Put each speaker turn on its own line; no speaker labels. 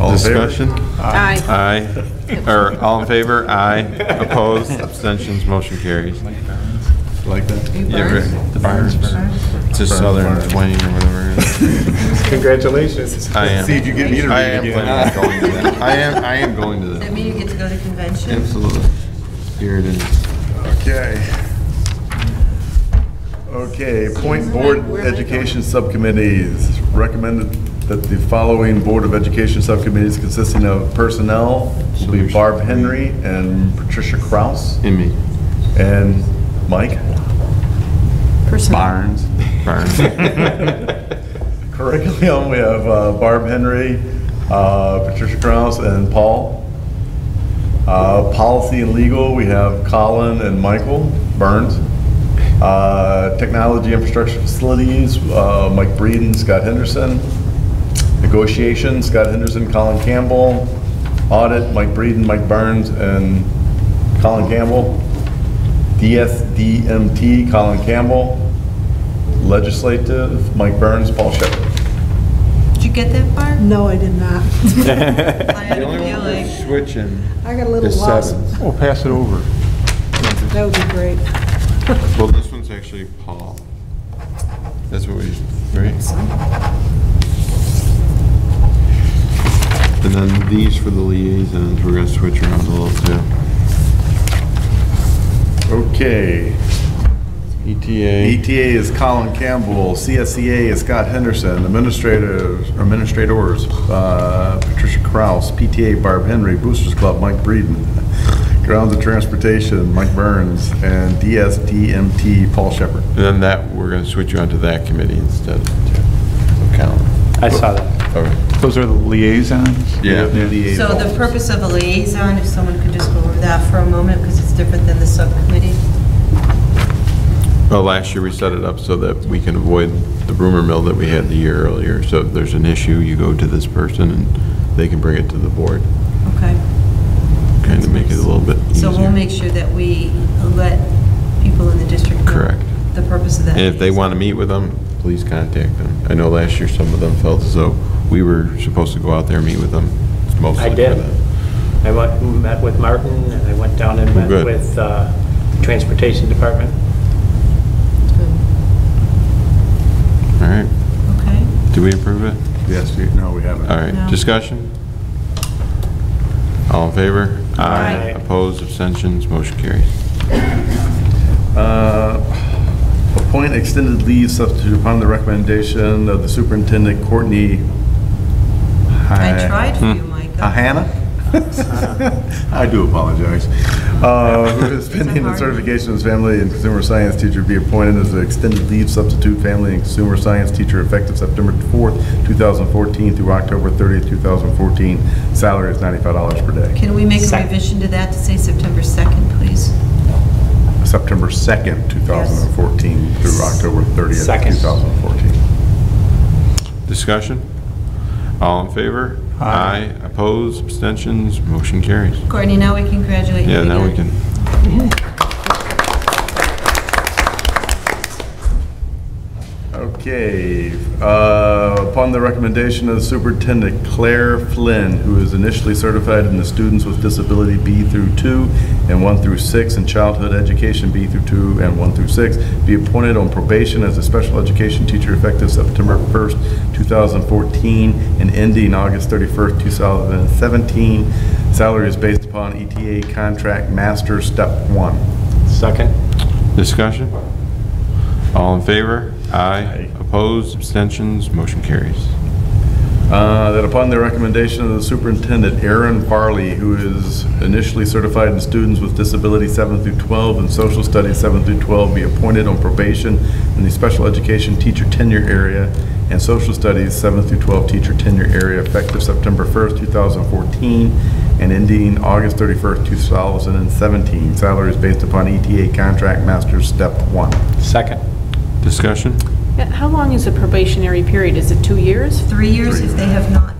All in favor?
Discussion?
Aye.
Aye. Er, Or, all in favor? Aye. Opposed? Abstentions? Motion carries.
Like that?
Yeah, right. The Barnes. It's a Southern Twain or whatever. it is.
Congratulations.
I am.
See if you get me to
I
read
am
again.
planning on going to that. I am, I am going to
Does that
that.
mean you get to go to convention?
Absolutely. Here it is.
Okay. Okay, appoint board education subcommittees. Recommended that the following board of education subcommittees consisting of personnel will be Barb Henry and Patricia Kraus
In me.
and Mike
Barnes. Barnes.
Curriculum, we have uh, Barb Henry, uh, Patricia Kraus, and Paul. Uh, Policy and legal, we have Colin and Michael Burns. Uh, Technology infrastructure facilities, uh, Mike Breed and Scott Henderson. Negotiations, Scott Henderson, Colin Campbell. Audit, Mike Breed and Mike Burns, and Colin Campbell. DSDMT, Colin Campbell. Legislative, Mike Burns, Paul Shepard.
Did you get that far?
No, I did not.
I had
The
a
only one
feeling.
that's switching
I got a
is
little lost.
sevens.
We'll pass it over.
That would be great.
Well, this one's actually Paul. That's what we, right? And then these for the liaisons, we're gonna switch around a little too.
Okay.
ETA.
ETA is Colin Campbell, CSEA is Scott Henderson, administrators, or administrators, uh, Patricia Kraus, PTA Barb Henry, Boosters Club Mike Breeden, Grounds and Transportation Mike Burns, and DSDMT Paul Shepard.
And then that, we're gonna switch you onto that committee instead of of Callan.
I saw that.
All right.
Those are the liaisons?
Yeah.
So the purpose of a liaison, if someone could just go over that for a moment, because it's different than the subcommittee.
Well, last year we set it up so that we can avoid the rumor mill that we had the year earlier. So if there's an issue, you go to this person and they can bring it to the board,
Okay.
kind of make it a little bit easier.
So we'll make sure that we let people in the district know
Correct.
the purpose of that.
And if they
liaison.
want to meet with them, please contact them. I know last year some of them felt as though we were supposed to go out there and meet with them, mostly
I
for
did.
that.
I went, met with Martin, and I went down and met
Good.
with uh, Transportation Department.
All right,
Okay.
do we approve it?
Yes, you- no, we haven't.
All right,
No.
discussion? All in favor?
Aye.
Opposed, abstentions, motion carries.
Uh, Appoint extended leave substitute upon the recommendation of the superintendent Courtney.
I
Hi-
tried for
hmm.
you, Micah.
Uh, Hannah? I do apologize. Uh, Who is pending the
hard.
certification as family and consumer science teacher be appointed as an extended leave substitute family and consumer science teacher effective September 4th, 2014 through October 30th, 2014. Salary is $95 per day.
Can we make a
Second.
revision to that to say September 2nd, please?
September 2nd, 2014 through October 30th,
Second.
2014.
Discussion? All in favor?
Aye.
Opposed, abstentions, motion carries.
Courtney, now we can congratulate you
Yeah,
again.
now we can.
Okay, uh, upon the recommendation of the Superintendent Claire Flynn, who is initially certified in the Students with Disability B through 2 and 1 through 6, and Childhood Education B through 2 and 1 through 6, be appointed on probation as a special education teacher effective September 1st, 2014, and ending August 31st, 2017. Salary is based upon ETA contract master step 1.
Second.
Discussion? All in favor?
Aye.
Aye. Opposed, abstentions, motion carries.
Uh, That upon the recommendation of the superintendent, Aaron Farley, who is initially certified in students with disability 7 through 12 and social studies 7 through 12, be appointed on probation in the special education teacher tenure area and social studies 7 through 12 teacher tenure area effective September 1st, 2014, and ending August 31st, 2017. Salary is based upon ETA contract master's step one.
Second.
Discussion?
Yeah, How long is a probationary period? Is it two years?
Three years if they have not Oh,